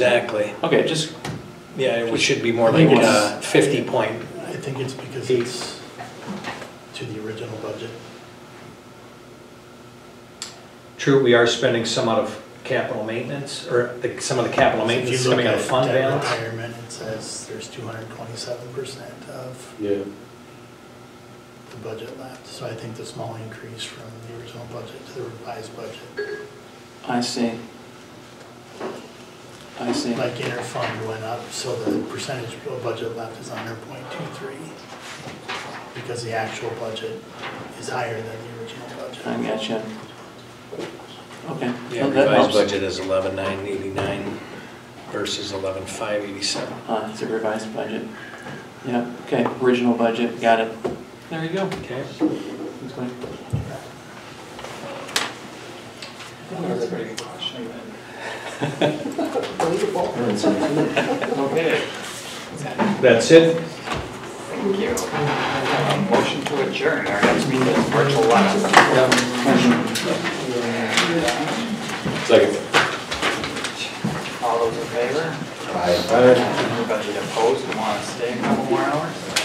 Exactly. Okay, just, Yeah, it should be more like uh, 50 point. I think it's because it's to the original budget. True, we are spending some out of capital maintenance, or the- some of the capital If you maintenance is look coming out of at fund debt balance. Retirement, it says there's two hundred and twenty-seven percent of Yeah, the budget left. So I think the small increase from the original budget to the revised budget, I see. I see. like interfund went up, so the percentage of budget left is under point two three. Because the actual budget is higher than the original I budget. gotcha. Okay. Yeah, well, that revised helps. budget is 11,989 versus 11,587. Uh, it's a revised budget. Yeah, okay, original budget, got it. There you go. Okay. That's fine. Okay, That's it? thank you. Um, Motion to adjourn, our next meeting is March 11th. second. All those in favor? Aye. Anybody opposed, who want to stay a couple more hours?